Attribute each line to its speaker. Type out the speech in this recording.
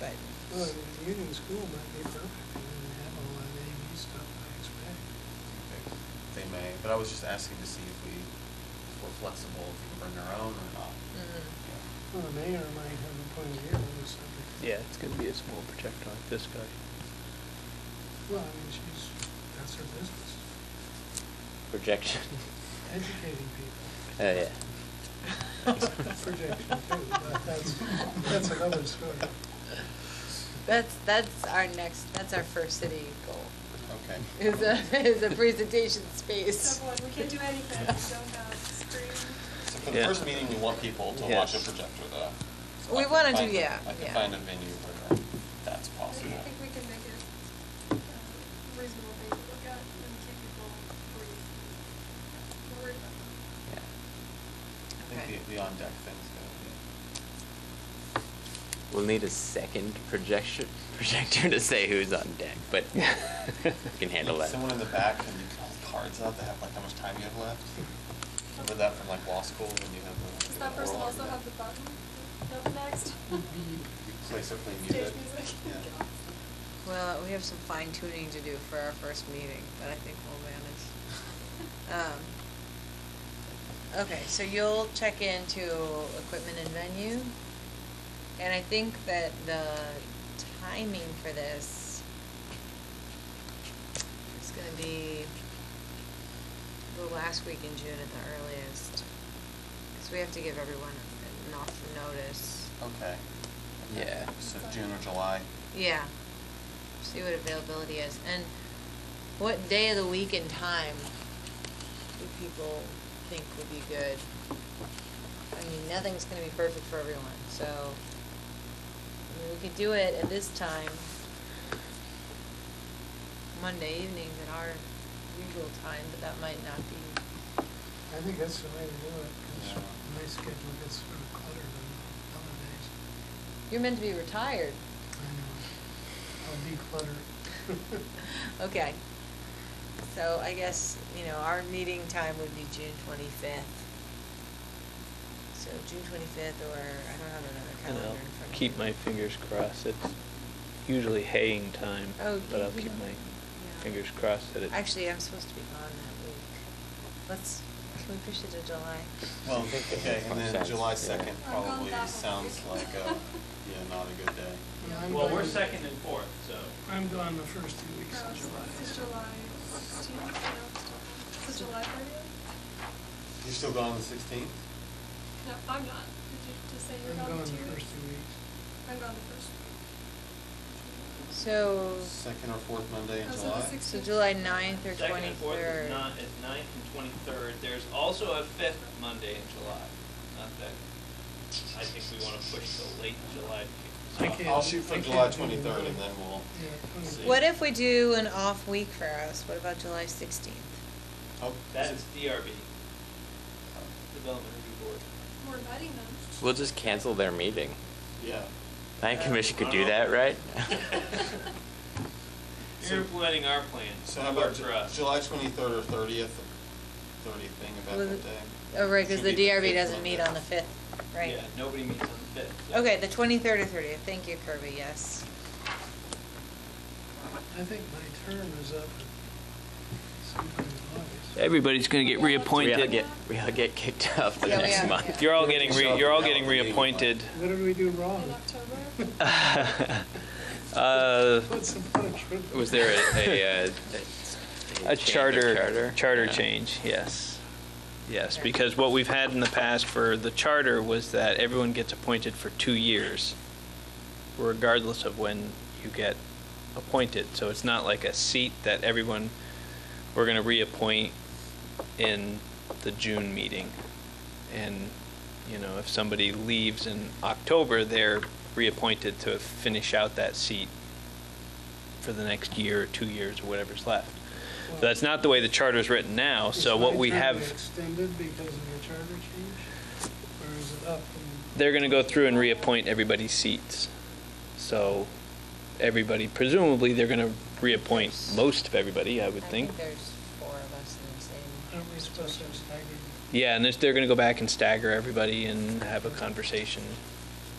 Speaker 1: but.
Speaker 2: Mm.
Speaker 3: Well, the union school might be perfect, and then have all that AV E stuff, I expect.
Speaker 4: They may, but I was just asking to see if we, if we're flexible, if we can bring our own or not.
Speaker 1: Mm.
Speaker 4: Yeah.
Speaker 3: Well, the mayor might have a point of view on this subject.
Speaker 5: Yeah, it's gonna be a small projector like this guy.
Speaker 3: Well, I mean, she's, that's her business,
Speaker 6: Projection.
Speaker 3: educating people.
Speaker 6: Oh, yeah.
Speaker 3: Projection too, but that's, that's another story.
Speaker 1: That's, that's our next, that's our first city goal,
Speaker 6: Mm-hmm.
Speaker 4: Okay.
Speaker 1: is a, is a presentation space.
Speaker 2: Step one, we can't do anything, we don't have screen.
Speaker 4: So for the
Speaker 5: Yeah.
Speaker 4: first meeting, we want people to watch a
Speaker 5: Yes.
Speaker 4: projector though. So
Speaker 1: We
Speaker 4: I can
Speaker 1: wanna do-
Speaker 4: find a-
Speaker 1: yeah,
Speaker 4: I can
Speaker 1: yeah.
Speaker 4: find a venue where that's
Speaker 2: I
Speaker 4: possible.
Speaker 2: think we can make it a reasonable thing to look at and keep people worried. worried about it.
Speaker 4: Yeah. I
Speaker 1: Okay.
Speaker 4: think the, the on-deck thing's good.
Speaker 6: We'll need a second projection projector to say who's on deck, but we can handle that.
Speaker 4: Someone in the back, can you call cards out that have like how much time you have left? Remember that from like law school when you have the.
Speaker 2: Does that person also have the button? Up next?
Speaker 4: You place it, play
Speaker 2: Stage
Speaker 4: music.
Speaker 2: music?
Speaker 4: Yeah.
Speaker 1: Well, we have some fine tuning to do for our first meeting, but I think we'll manage. Um, Okay, so you'll check into equipment and venue, and I think that the timing for this is gonna be the last week in June at the earliest, because we have to give everyone enough notice.
Speaker 4: Okay.
Speaker 6: Yeah.
Speaker 4: So June or July.
Speaker 1: Yeah, see what availability is, and what day of the week and time do people think would be good? I mean, nothing's gonna be perfect for everyone, so, I mean, we could do it at this time, Monday evenings at our usual time, but that might not be,
Speaker 3: I think that's the way to do it, because
Speaker 4: Yeah.
Speaker 3: my schedule gets sort of cluttered on holidays.
Speaker 1: you're meant to be retired.
Speaker 3: I know, I'll declutter.
Speaker 1: Okay, so I guess, you know, our meeting time would be June twenty-fifth. So June twenty-fifth, or I don't have another
Speaker 5: And
Speaker 1: calendar
Speaker 5: I'll
Speaker 1: in front of me.
Speaker 5: keep my fingers crossed. It's usually haying time,
Speaker 1: Oh,
Speaker 5: but I'll
Speaker 1: you-
Speaker 5: keep my
Speaker 1: yeah.
Speaker 5: fingers crossed that it.
Speaker 1: Actually, I'm supposed to be gone that week. Let's, can we push it to July?
Speaker 4: Well,
Speaker 6: I think that
Speaker 4: okay,
Speaker 6: makes
Speaker 4: and
Speaker 6: more
Speaker 4: then
Speaker 6: sense,
Speaker 4: July
Speaker 6: yeah.
Speaker 4: second
Speaker 2: I'm going
Speaker 4: probably
Speaker 2: that way.
Speaker 4: sounds like, uh, yeah, not a good day.
Speaker 3: Yeah, I'm
Speaker 7: Well,
Speaker 3: going-
Speaker 7: we're second and fourth, so.
Speaker 3: I'm gone the first two weeks
Speaker 2: Uh,
Speaker 3: of July.
Speaker 2: Is
Speaker 3: so-
Speaker 2: July, do you know, is it July thirtieth?
Speaker 4: You're still gone on the sixteenth?
Speaker 2: No, I'm not. Did you just say you're
Speaker 3: I'm
Speaker 2: gone
Speaker 3: gone
Speaker 2: for
Speaker 3: the
Speaker 2: two
Speaker 3: first
Speaker 2: weeks?
Speaker 3: two weeks.
Speaker 2: I'm gone the first week.
Speaker 1: So,
Speaker 4: Second or fourth Monday in
Speaker 2: Oh, so the
Speaker 4: July?
Speaker 2: six-
Speaker 1: so July ninth or
Speaker 7: Second and fourth
Speaker 1: twenty-third.
Speaker 7: is not, is ninth and twenty-third. There's also a fifth Monday in July. Not that, I think we want to push till late July. to
Speaker 3: I
Speaker 7: kick this
Speaker 3: can't-
Speaker 7: off.
Speaker 4: I'll shoot
Speaker 3: I
Speaker 4: for
Speaker 3: can't
Speaker 4: July
Speaker 3: do the
Speaker 4: twenty-third
Speaker 3: ninth.
Speaker 4: and then we'll,
Speaker 3: Yeah,
Speaker 7: See.
Speaker 3: twenty-
Speaker 1: What if we do an off week for us? What about July sixteenth?
Speaker 4: oh.
Speaker 7: That is DRB, Development Review Board.
Speaker 2: We're inviting them.
Speaker 6: We'll just cancel their meeting.
Speaker 4: Yeah. Uh-huh.
Speaker 6: Planning
Speaker 1: Uh,
Speaker 6: commission could
Speaker 7: I
Speaker 6: do
Speaker 7: don't
Speaker 6: that,
Speaker 7: know.
Speaker 6: right?
Speaker 7: You're implementing our plan.
Speaker 4: So how
Speaker 7: It worked
Speaker 4: about
Speaker 7: for us.
Speaker 4: Ju- July twenty-third or thirtieth, thirtieth thing about
Speaker 1: Was
Speaker 4: that
Speaker 1: it-
Speaker 4: day?
Speaker 1: Oh, right, because
Speaker 4: Should
Speaker 1: the
Speaker 4: be
Speaker 1: DRB
Speaker 4: fifth
Speaker 1: doesn't meet
Speaker 4: Monday.
Speaker 1: on the fifth, right?
Speaker 7: Yeah, nobody meets on the fifth. so-
Speaker 1: Okay, the twenty-third or thirtieth, thank you Kirby, yes.
Speaker 3: I think my term is up sometime in August.
Speaker 5: Everybody's gonna get
Speaker 2: Yeah, let's do
Speaker 6: We all
Speaker 2: Appointed.
Speaker 6: get,
Speaker 5: reappointed.
Speaker 6: we all get kicked off the
Speaker 1: Yeah, we
Speaker 6: next
Speaker 1: are,
Speaker 6: month.
Speaker 1: yeah.
Speaker 5: You're all getting, re- you're all getting reappointed.
Speaker 3: What did we do wrong?
Speaker 2: In October?
Speaker 5: Uh,
Speaker 3: What's the punishment?
Speaker 6: Was there a, a, uh, a,
Speaker 5: A
Speaker 6: change of
Speaker 5: charter, charter
Speaker 6: Yeah.
Speaker 5: change, yes. Yes,
Speaker 1: Okay.
Speaker 5: because what we've had in the past for the charter was that everyone gets appointed for two years, regardless of when you get appointed. So it's not like a seat that everyone, we're going to reappoint in the June meeting. And, you know, if somebody leaves in October, they're reappointed to finish out that seat for the next year or two years or whatever's left. So that's not the way the charter's written
Speaker 6: oh,
Speaker 5: now,
Speaker 3: Is
Speaker 5: so what
Speaker 3: my
Speaker 5: we
Speaker 3: term
Speaker 5: have,
Speaker 3: Extended because of the charter change? Or is it up and?
Speaker 5: they're gonna go through and reappoint everybody's seats. So everybody, presumably, they're gonna reappoint most of everybody, I would think.
Speaker 1: there's four of us in the same.
Speaker 3: Aren't we supposed to have staggered?
Speaker 5: Yeah, and this- they're gonna go back and stagger everybody and have a conversation